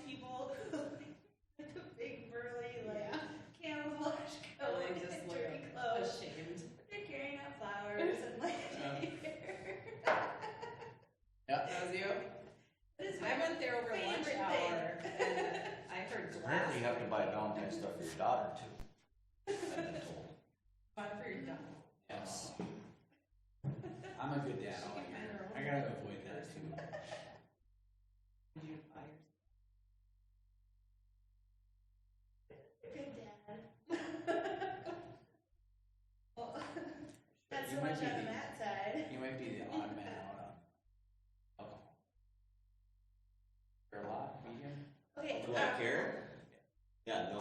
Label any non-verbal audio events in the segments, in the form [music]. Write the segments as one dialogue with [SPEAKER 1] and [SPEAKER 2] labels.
[SPEAKER 1] [laughs] [laughs] [laughs]
[SPEAKER 2] Oh,
[SPEAKER 3] [laughs] [laughs] Apparently you have to buy Valentine's stuff for your daughter too. I've been told.
[SPEAKER 2] Buy for your dog.
[SPEAKER 3] Yes.
[SPEAKER 4] I'm a good dad.
[SPEAKER 2] She can find her own.
[SPEAKER 4] I gotta avoid that too.
[SPEAKER 2] You buy yours.
[SPEAKER 1] Good dad. [laughs]
[SPEAKER 3] [laughs]
[SPEAKER 1] Well, not so
[SPEAKER 4] You
[SPEAKER 1] much
[SPEAKER 4] might be
[SPEAKER 1] on
[SPEAKER 4] the-
[SPEAKER 1] that side.
[SPEAKER 4] You might be the odd man out on alcohol. For a lot, medium?
[SPEAKER 1] Okay.
[SPEAKER 3] Do I
[SPEAKER 1] um,
[SPEAKER 3] care? Yeah, no,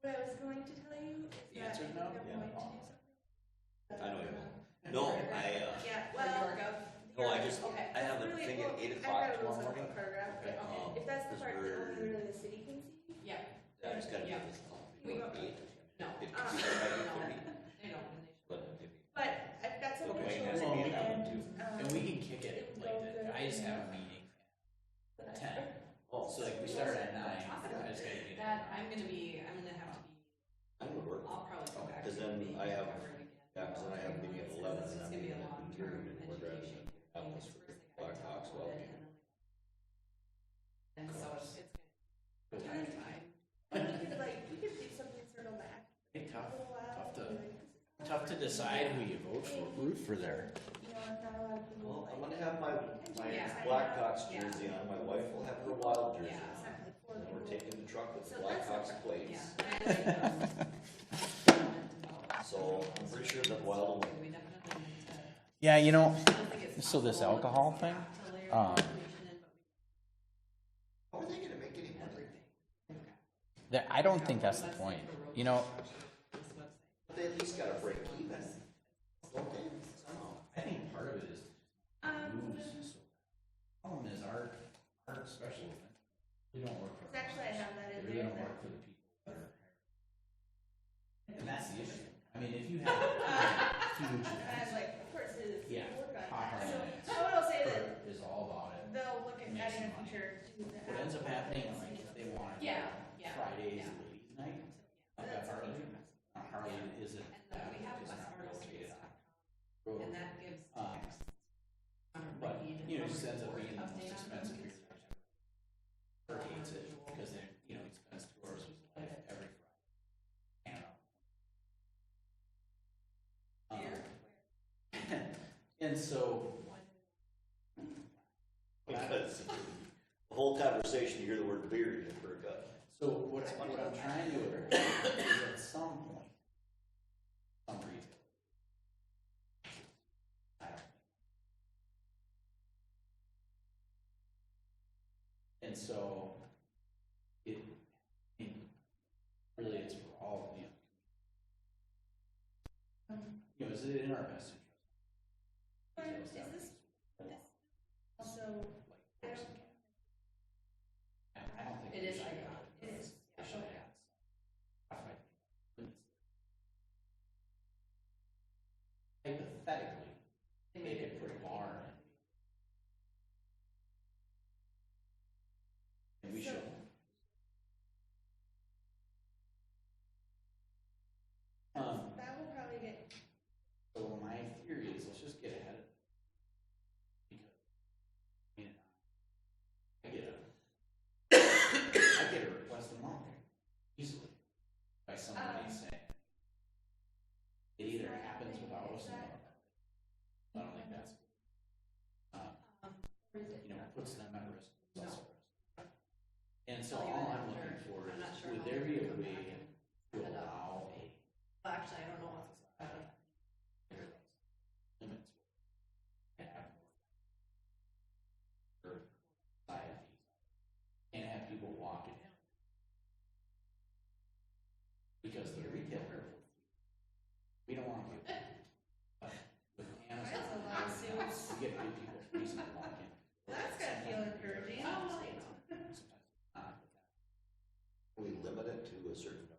[SPEAKER 1] What I was going to tell you is
[SPEAKER 4] The
[SPEAKER 1] that
[SPEAKER 4] answer's
[SPEAKER 1] I think
[SPEAKER 4] no?
[SPEAKER 1] I'm
[SPEAKER 3] Yeah.
[SPEAKER 1] going to do something.
[SPEAKER 3] I know you won't. No, I, uh,
[SPEAKER 1] Yeah,
[SPEAKER 2] Or
[SPEAKER 1] well,
[SPEAKER 2] your gov.
[SPEAKER 3] no, Oh, I just,
[SPEAKER 1] okay.
[SPEAKER 3] I have a
[SPEAKER 1] Really,
[SPEAKER 3] thing at
[SPEAKER 1] well,
[SPEAKER 3] eight
[SPEAKER 1] I've
[SPEAKER 3] o'clock
[SPEAKER 1] got
[SPEAKER 3] tomorrow
[SPEAKER 1] rules on
[SPEAKER 3] morning.
[SPEAKER 1] the paragraph,
[SPEAKER 4] Okay.
[SPEAKER 1] but
[SPEAKER 3] Um,
[SPEAKER 1] If that's the
[SPEAKER 3] because
[SPEAKER 1] part that
[SPEAKER 3] we're-
[SPEAKER 1] only really the city can see.
[SPEAKER 2] Yeah,
[SPEAKER 3] uh, I just gotta
[SPEAKER 2] Yeah.
[SPEAKER 3] get this.
[SPEAKER 2] We Ah. don't-
[SPEAKER 3] Eight.
[SPEAKER 2] no.
[SPEAKER 3] It can start by eight thirty,
[SPEAKER 2] They don't, and they
[SPEAKER 3] but if
[SPEAKER 1] But I've got some
[SPEAKER 3] But Wayne
[SPEAKER 1] actual
[SPEAKER 3] has to be in that one
[SPEAKER 1] and,
[SPEAKER 3] too.
[SPEAKER 1] um,
[SPEAKER 4] And we can kick it like that. I just have a meeting at ten.
[SPEAKER 3] Oh,
[SPEAKER 4] So like we start at nine, I just gotta
[SPEAKER 2] should.
[SPEAKER 4] get.
[SPEAKER 2] That, I'm gonna be, I'm gonna have to be,
[SPEAKER 3] I would work.
[SPEAKER 2] I'll probably go back. to
[SPEAKER 3] Because then
[SPEAKER 2] being
[SPEAKER 3] I have-
[SPEAKER 2] covered again.
[SPEAKER 3] yeah, 'cause then I have a meeting at
[SPEAKER 2] It's
[SPEAKER 3] 11,
[SPEAKER 2] just
[SPEAKER 3] and I'm
[SPEAKER 2] gonna be a
[SPEAKER 3] meeting at
[SPEAKER 2] long-term
[SPEAKER 3] noon, and we're driving
[SPEAKER 2] education.
[SPEAKER 3] to Atlas
[SPEAKER 2] It's
[SPEAKER 3] for
[SPEAKER 2] first thing I
[SPEAKER 3] Black
[SPEAKER 2] talk
[SPEAKER 3] Hawks,
[SPEAKER 2] about
[SPEAKER 3] well,
[SPEAKER 2] it, And then- and so it's, it's
[SPEAKER 4] But
[SPEAKER 2] gonna take
[SPEAKER 4] time.
[SPEAKER 2] time.
[SPEAKER 1] I mean, we could like, we could do something sort of back a
[SPEAKER 4] Hey, tough,
[SPEAKER 1] little while.
[SPEAKER 4] Tough to-
[SPEAKER 1] and be like,
[SPEAKER 4] tough to decide who you vote for, root for there.
[SPEAKER 1] You know, if not a lot of people
[SPEAKER 3] Well, I'm
[SPEAKER 1] like.
[SPEAKER 3] gonna have my, my
[SPEAKER 2] Yeah.
[SPEAKER 3] Blackhawks
[SPEAKER 2] Yeah.
[SPEAKER 3] jersey on, my wife will have her Wild jersey
[SPEAKER 2] Yeah.
[SPEAKER 3] on.
[SPEAKER 1] Exactly, four
[SPEAKER 3] And then we're
[SPEAKER 1] people.
[SPEAKER 3] taking the truck with the
[SPEAKER 1] So that's
[SPEAKER 3] Blackhawks
[SPEAKER 1] okay.
[SPEAKER 3] [laughs]
[SPEAKER 2] Yeah.
[SPEAKER 3] plates,
[SPEAKER 2] I-
[SPEAKER 3] so I'm pretty sure the Wild will win.
[SPEAKER 2] We definitely need to.
[SPEAKER 5] Yeah, you know,
[SPEAKER 2] I don't think it's
[SPEAKER 5] So this
[SPEAKER 2] possible
[SPEAKER 5] alcohol
[SPEAKER 2] to
[SPEAKER 5] thing,
[SPEAKER 2] have to layer
[SPEAKER 5] um,
[SPEAKER 2] information in,
[SPEAKER 3] How are they gonna make any
[SPEAKER 2] but
[SPEAKER 3] money?
[SPEAKER 2] everything.
[SPEAKER 5] that, I don't think that's the point. You know,
[SPEAKER 3] They at least gotta break even, don't they? Somehow.
[SPEAKER 4] I think part of it is
[SPEAKER 1] Um,
[SPEAKER 4] moves. so- Problem is our, our special event, we don't work for.
[SPEAKER 1] it's actually, I have that
[SPEAKER 4] They
[SPEAKER 1] in
[SPEAKER 4] really
[SPEAKER 1] there.
[SPEAKER 4] don't
[SPEAKER 1] that-
[SPEAKER 4] work for the people that are hired. And that's the issue. I mean, if you
[SPEAKER 2] [laughs]
[SPEAKER 4] have a huge
[SPEAKER 1] And uh, [laughs] I was
[SPEAKER 4] event,
[SPEAKER 1] like, of course, it's
[SPEAKER 4] Yeah.
[SPEAKER 1] work on
[SPEAKER 4] Hot
[SPEAKER 1] that.
[SPEAKER 4] rod.
[SPEAKER 1] So I
[SPEAKER 2] Uh,
[SPEAKER 1] will say that
[SPEAKER 4] Kurt is all about it.
[SPEAKER 1] they'll look at that in the future. do the
[SPEAKER 4] What ends up
[SPEAKER 1] app.
[SPEAKER 4] happening, like, if they want to.
[SPEAKER 2] Yeah, yeah.
[SPEAKER 4] Fridays,
[SPEAKER 2] yeah.
[SPEAKER 4] ladies night, like at Harley, uh, Harley isn't.
[SPEAKER 2] And then we have
[SPEAKER 4] is
[SPEAKER 2] less
[SPEAKER 4] not
[SPEAKER 2] artists,
[SPEAKER 4] rotated out.
[SPEAKER 2] and that gives
[SPEAKER 4] Um,
[SPEAKER 2] text. Um,
[SPEAKER 4] But,
[SPEAKER 2] we need
[SPEAKER 4] you know, it
[SPEAKER 2] a
[SPEAKER 4] just ends up
[SPEAKER 2] report
[SPEAKER 4] being the most
[SPEAKER 2] update on
[SPEAKER 4] expensive
[SPEAKER 2] things.
[SPEAKER 4] beer. Kurt hates it because they, you know, he spends two hours of his life every Friday. And, um,
[SPEAKER 2] Beer?
[SPEAKER 4] And so,
[SPEAKER 3] Because the whole conversation, you hear the word beer, you perk up.
[SPEAKER 4] so what I, what I'm trying to address is at some point, some reason. I don't. And so, it, it really it's for all, you know. You know, is it in our best
[SPEAKER 1] Or
[SPEAKER 4] interest?
[SPEAKER 1] is this also, I don't,
[SPEAKER 4] I don't think.
[SPEAKER 2] It
[SPEAKER 4] we
[SPEAKER 2] is
[SPEAKER 4] should
[SPEAKER 2] iconic.
[SPEAKER 4] have
[SPEAKER 1] It is,
[SPEAKER 4] They should have. Alright. Hypothetically,
[SPEAKER 2] They
[SPEAKER 4] they
[SPEAKER 2] make
[SPEAKER 4] could
[SPEAKER 2] it
[SPEAKER 4] put a bar in. And we
[SPEAKER 1] So-
[SPEAKER 4] should. Um,
[SPEAKER 1] that will probably get,
[SPEAKER 4] so my theory is let's just get ahead of it. Because, I mean, I get a, I get a request a month easily by somebody
[SPEAKER 1] Um,
[SPEAKER 4] saying, it either happens without us or not. I don't think that's, uh,
[SPEAKER 1] um,
[SPEAKER 2] or is it
[SPEAKER 4] you know, puts them at risk. puts us at risk. And so
[SPEAKER 2] Tell you
[SPEAKER 4] all
[SPEAKER 2] that
[SPEAKER 4] I'm
[SPEAKER 2] after.
[SPEAKER 4] looking for
[SPEAKER 2] I'm not
[SPEAKER 4] is,
[SPEAKER 2] sure
[SPEAKER 4] would
[SPEAKER 2] how
[SPEAKER 4] there
[SPEAKER 2] they're
[SPEAKER 4] be
[SPEAKER 2] gonna
[SPEAKER 4] a
[SPEAKER 2] come back
[SPEAKER 4] way
[SPEAKER 2] and-
[SPEAKER 4] to
[SPEAKER 2] cut it off.
[SPEAKER 4] allow a
[SPEAKER 2] well, Actually, I don't know what's
[SPEAKER 4] I
[SPEAKER 2] happening.
[SPEAKER 4] don't know. Limits. And have more. Or buy a fee. And have people walk it down. Because the retailer, we don't want to get. With Amazon,
[SPEAKER 1] That's a
[SPEAKER 4] Amazon,
[SPEAKER 1] lawsuit.
[SPEAKER 4] we get good people for reason to walk in.
[SPEAKER 1] well, that's gotta feel encouraging.
[SPEAKER 2] Oh, well, you know.
[SPEAKER 4] Sometimes not, but that-
[SPEAKER 3] We limit it to a certain